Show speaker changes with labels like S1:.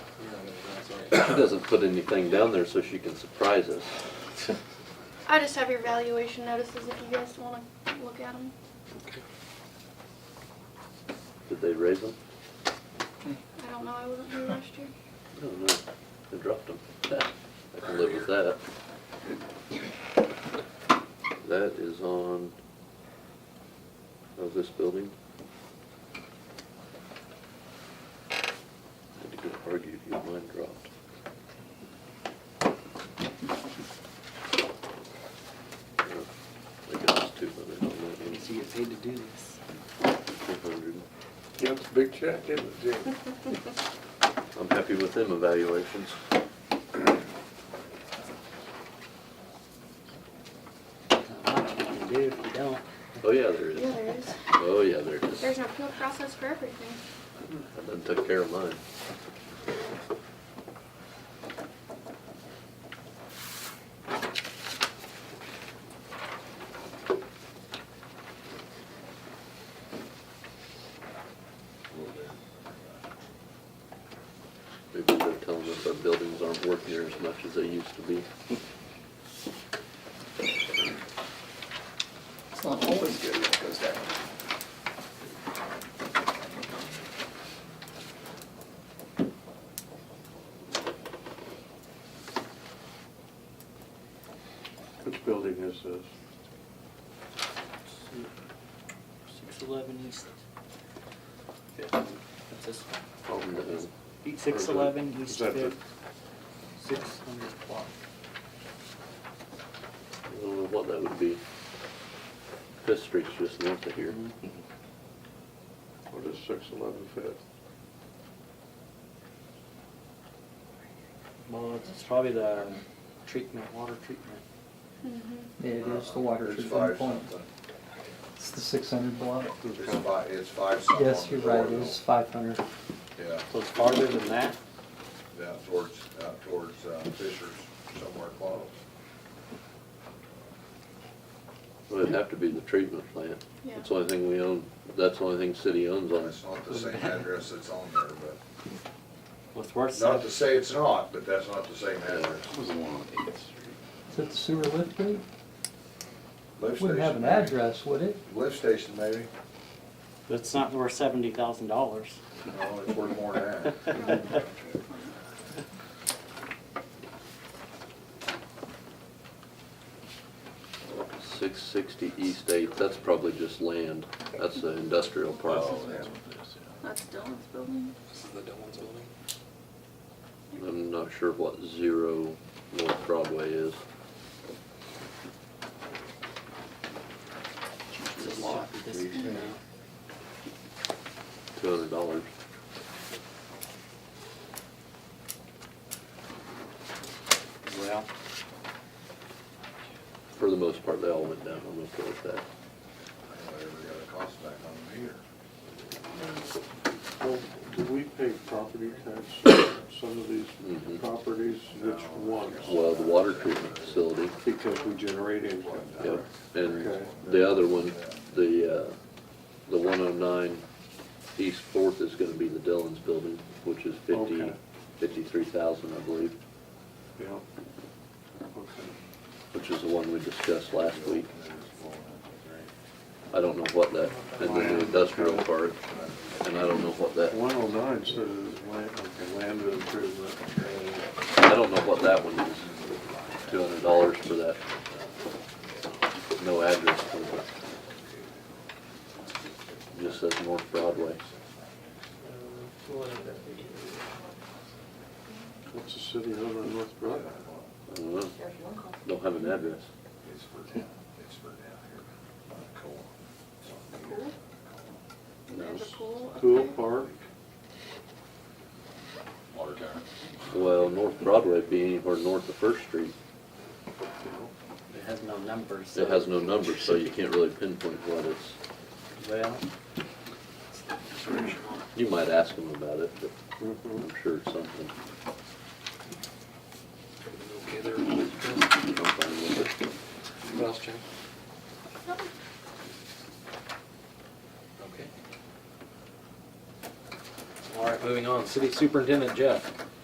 S1: She doesn't put anything down there so she can surprise us.
S2: I just have your valuation notices if you guys wanna look at them.
S1: Did they raise them?
S2: I don't know, I wasn't here last year.
S1: No, no, they dropped them. I can live with that. That is on, of this building. Had to go argue to get mine dropped. Yeah, I guess it's two hundred on that one.
S3: Because you get paid to do this.
S1: Two hundred.
S4: Yeah, it's a big check, isn't it, Jim?
S1: I'm happy with them evaluations.
S3: There's not much you can do if you don't.
S1: Oh, yeah, there
S2: Yeah,
S1: is.
S2: there is.
S1: Oh, yeah, there is.
S2: There's an appeal process for everything.
S1: I done took care of mine. Maybe they're telling us our buildings aren't worth near as much as they used to be.
S5: It's not always good when it goes down.
S4: Which building is this?
S3: Six eleven east. That's this one.
S1: Oh, no.
S3: Beat six eleven
S4: Is
S3: east
S4: that the-
S3: fifth. Six hundred block.
S1: I don't know what that would be. Fifth Street's just north of here.
S4: What is six eleven fifth?
S3: Well, it's it's probably the treatment, water treatment.
S2: Mm-hmm,
S6: Yeah, it is the water
S5: There's
S6: treatment
S5: five
S6: plant.
S5: something.
S6: It's the six hundred block.
S5: There's five, it's five something.
S6: Yes, you're right, it is five hundred.
S5: Yeah,
S3: So it's farther than that?
S5: down towards, out towards uh, Fisher's, somewhere close.
S1: Well, it'd have to be the treatment plant.
S2: Yeah.
S1: That's the only thing we own, that's the only thing city owns on us.
S5: It's not the same address that's on there, but,
S3: With worth
S5: not
S3: seven.
S5: to say it's not, but that's not the same address.
S7: That was the one on Eighth Street.
S6: Is it the sewer lift gate?
S5: Lift
S6: Wouldn't have
S5: station,
S6: an
S5: maybe.
S6: address, would it?
S5: Lift station, maybe.
S3: But it's not worth seventy thousand dollars.
S5: No, it's worth more than that.
S1: Six sixty East Eighth, that's probably just land. That's the industrial part.
S5: Oh, yeah.
S2: That's Dylan's building.
S7: This is the Dylan's building.
S1: I'm not sure what zero North Broadway is.
S3: This lot, this one now.
S1: Two hundred dollars.
S3: Well,
S1: For the most part, they all went down. I'm okay with that.
S5: Anyway, we got a cost back on the meter.
S4: Well, do we pay property tax on some of these
S1: Mhm.
S4: properties? Which ones?
S1: Well, the water treatment facility,
S4: Because we generate income.
S1: yep. And
S4: Okay.
S1: the other one, the, uh, the one oh nine East Fourth is gonna be the Dillon's building, which is fifty,
S4: Okay.
S1: fifty-three thousand, I believe.
S4: Yeah. Okay.
S1: which is the one we discussed last week. I don't know what that, and then the industrial part, and I don't know what that,
S4: One oh nine says land, okay, land improvement.
S1: I
S4: uh,
S1: don't know what that one is. Two hundred dollars for that. No address for it. Just says North Broadway.
S4: What's the city over on North Broadway?
S1: I don't know. Don't have an address.
S5: It's for down, it's for down here, on Coal. It's on meter.
S2: There's a pool. up
S4: Pool
S2: there.
S4: Park?
S5: Water tower.
S1: Well, North Broadway would be anywhere north of First Street.
S3: it has no numbers.
S1: It has no number, so you can't really pinpoint what it's.
S3: Well,
S1: You might ask them about it, but
S4: Mhm.
S1: I'm sure it's something.
S7: Okay, there. What
S1: I'm fine with it.
S7: else, Jim? Okay. All right, moving on. City Superintendent Jeff.